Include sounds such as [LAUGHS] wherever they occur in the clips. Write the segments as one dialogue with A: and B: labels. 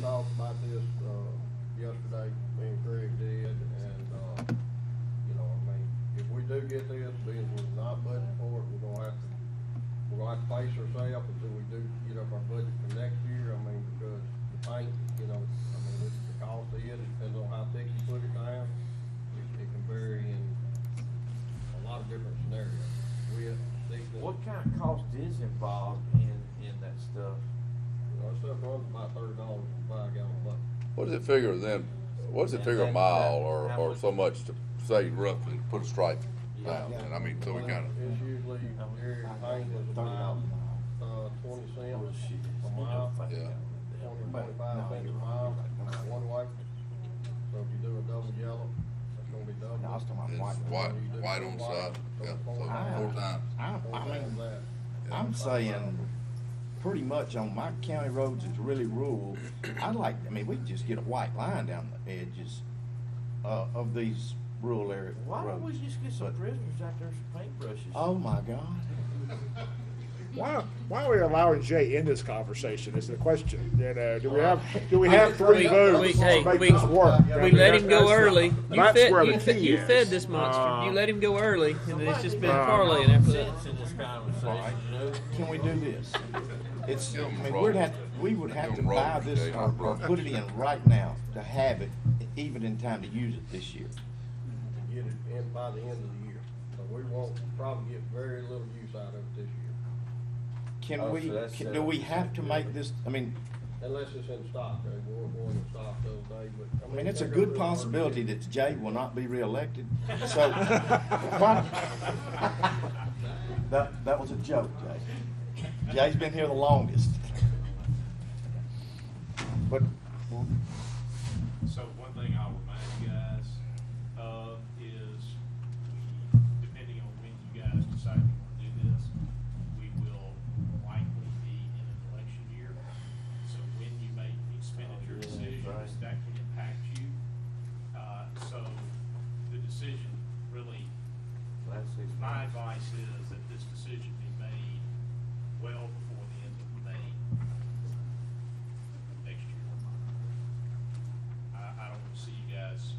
A: talked about this, uh, yesterday, me and Craig did, and, uh, you know, I mean, if we do get this, being we're not budgeting for it, we're gonna have to, we're gonna have to face ourselves until we do get up our budget for next year, I mean, because the paint, you know, I mean, it's the cost of it, depends on how thick you put it down, it, it can vary in a lot of different scenarios. We have to see that.
B: What kind of cost is involved in, in that stuff?
A: You know, that stuff runs about thirty dollars a five gallon bucket.
C: What does it figure then? What does it figure a mile or, or so much to say roughly, put a stripe down? And I mean, so we kinda,
A: It's usually, every paint is a mile, uh, twenty
D: Oh,
A: cents a mile,
C: yeah.
A: twenty, twenty-five cents a mile, one way. So if you do a double yellow, it's gonna be double.
D: No, I was talking about
C: It's
D: white.
C: white, white on the side, yeah, so
A: Ah.
C: four times.
D: I,
A: Four
D: I
A: times
D: mean,
A: that.
D: I'm saying, pretty much on my county roads that's really rural, I'd like, I mean, we could just get a white line down the edges, uh, of these rural area
B: Why don't we
D: roads.
B: just get some
D: But-
B: prisoners out there, some paintbrushes?
D: Oh, my God.
E: Why, why are we allowing Jay in this conversation is the question. You know, do we have, do we have three
F: We- we-
E: votes
F: hey,
E: to make
F: we-
E: this work? I mean,
F: We let
E: that's-
F: him go
E: that's Uh, the-
F: early. You
E: that's
F: fed,
E: where
F: you
E: the
F: fed,
E: key
F: you
E: is. uh,
F: fed this monster. You let him go early, and it's just been parlaying after that.
B: Sense in this
D: Alright,
B: conversation, you know?
D: can we do this? It's, I
C: Give 'em
D: mean,
C: roll.
D: we'd have, we would have to
C: Give 'em roll,
D: buy this
C: Jay,
D: or,
C: not
D: or
C: roll.
D: put it in right now to have it, even in time to use it this year.
A: to Get it in by the end of the year, so we won't probably get very little use out of it this year,
D: Can
B: Oh,
D: we,
B: so that's,
D: can-
B: uh,
D: do we have to make this, I mean,
A: unless it's in stock, they were going to stock the other day, but.
D: I mean, it's a
A: they're gonna
D: good
A: do work.
D: possibility that Jay will not be reelected, so. [LAUGHS] why- [LAUGHS] That, that was a joke, Jay. Jay's been here the longest. But,
G: So one thing I'll remind you guys of is, we- depending on when you guys decide you want to do this, we will likely be in an election year. So when you make expenditure
B: Oh, yeah, that's
G: decisions,
B: right.
G: that can impact you. Uh, so the decision really,
B: That's it.
G: my advice is that this decision be made well before the end of May next year. I, I don't see you guys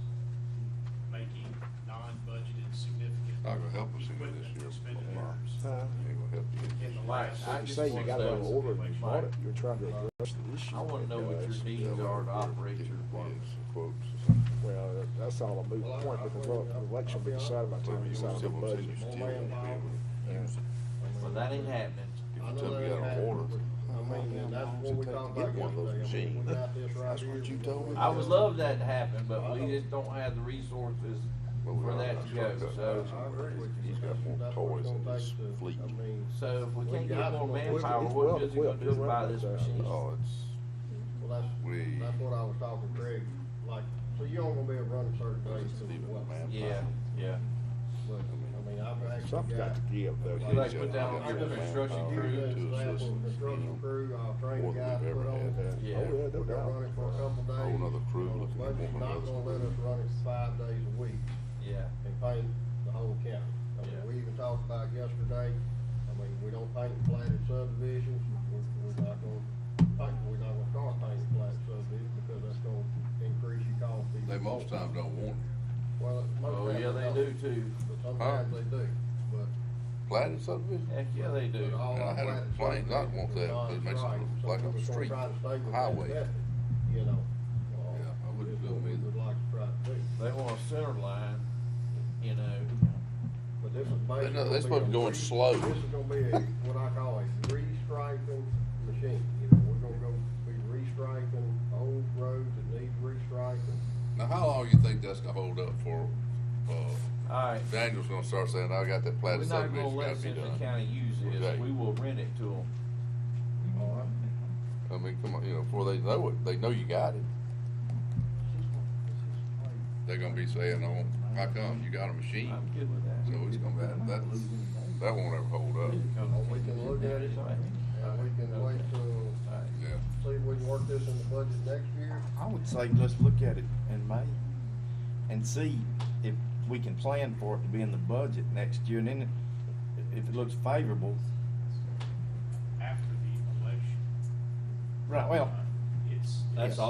G: making non-budgeted significant.
C: Not gonna help us any
G: equipment
C: this year.
G: expenditures
E: Uh,
C: Ain't gonna help you.
G: in the
B: Mike,
G: last.
B: I
E: You
B: just
E: say you
B: wanna
E: got it
B: know-
E: order and you bought
B: Mike,
E: it, you're trying to address the issue.
B: I wanna know what your needs are to operate your work.
C: Yes, quotes. or something.
E: Well, that- that's all a moot
A: Well, I-
E: point
A: I-
E: because well, the election will be decided by the time
C: Well,
E: we
C: you
E: decide the
C: still won't see
E: budget.
C: you still won't be able to use it.
B: Well, that ain't happening.
A: I
C: If you
A: know
C: tell me
A: that
C: you got an
A: ain't
C: order,
A: happening, but, I mean, and that's what we talked about
C: get one of those
A: yesterday. I mean, we
C: machines?
A: got this right
C: That's what
A: here.
C: you told me.
B: I would love that to happen, but we just don't have the resources
C: but we
B: for
C: got
B: that
C: a
B: to
C: truck
B: go,
C: up
B: so.
A: I agree with you.
C: He's got more
A: That's what it's
C: toys in
A: gonna
C: his
A: take to-
C: fleet.
A: I mean,
B: So if we
A: We
B: can't
A: got
B: get more
A: one.
B: manpower,
E: It's
B: what
E: well
B: good is it gonna
E: equipped.
B: do
E: You're right
B: about
E: about
B: this
E: that.
B: machine?
C: Oh, it's,
A: well,
C: We-
A: that's, that's what I was talking to Craig, like, so you don't gonna be able to run a certain days to the
C: Leave it,
A: well.
C: man.
B: Yeah, yeah.
A: But, I mean, I've actually
E: Something's got
A: got.
E: to give
B: You
E: though.
B: like put down on your construction
A: Here's
B: crew,
A: an example,
C: assistants, you
A: construction
C: know,
A: crew, I'll train
C: more
A: the
C: than
A: guys
C: we've
A: put
C: ever
A: on.
C: had.
A: We're
B: Yeah.
E: Oh, yeah, no
A: gonna run
E: doubt.
A: it for a couple days.
C: Whole nother crew looking at
A: Budget's
C: one
A: not
C: another.
A: gonna let us run it five days a week.
B: yeah.
A: and paint the whole county. I
B: Yeah.
A: mean, we even talked about yesterday, I mean, we don't paint platted subdivisions, we're, we're not gonna, paint we're not gonna start painting platted subdivisions because that's gonna increase your cost. even
C: they most
A: more.
C: times don't want it.
A: Well, most
B: Oh,
A: times
B: yeah,
A: they
B: they do
A: don't,
B: too.
A: But sometimes they do, but.
C: Platted subdivision?
B: Heck, yeah, they do.
A: but all
C: And I
A: our
C: had a
A: platted
C: complaint, not want that,
A: subdivisions are
C: it makes it
A: not
C: look
A: right, so
C: like a
A: we're gonna
C: street,
A: try to stay with that
C: highway.
A: method, You know. uh,
C: Yeah, I wouldn't
A: is
C: do
A: what
C: them
A: we
C: either.
A: Would like to try to do,
B: They want a center line, you know.
A: but this is basically.
C: know,
A: gonna
C: they're
A: be
C: supposed to
A: a
C: go in
A: free-
C: slow.
A: This is gonna be a, what I call a restriping machine, you know, we're gonna go be restriping old roads that need restriping.
C: Now, how long you think that's gonna hold up for, uh,
B: All right,
C: Daniel's gonna start saying, I got that
B: we're
C: platted
B: not gonna
C: subdivision gotta
B: let
C: be
B: Central
C: done?
B: County use
C: Okay.
B: this. We will rent it to them.
A: All right.
C: I mean, come on, you know, before they know it, they know you got it. They're gonna be saying, oh, how come, you got a machine?
B: I'm good with
C: So
B: that.
C: it's gonna, that, that, that won't ever hold up,
A: we can look at it, and we can wait till,
C: yeah.
A: see if we can work this in the budget next year.
D: I would say, let's look at it in May and see if we can plan for it to be in the budget next year, and then if it looks favorable,
G: After the election.
D: right, well,
G: uh, It's.
B: That's
G: it's-
B: all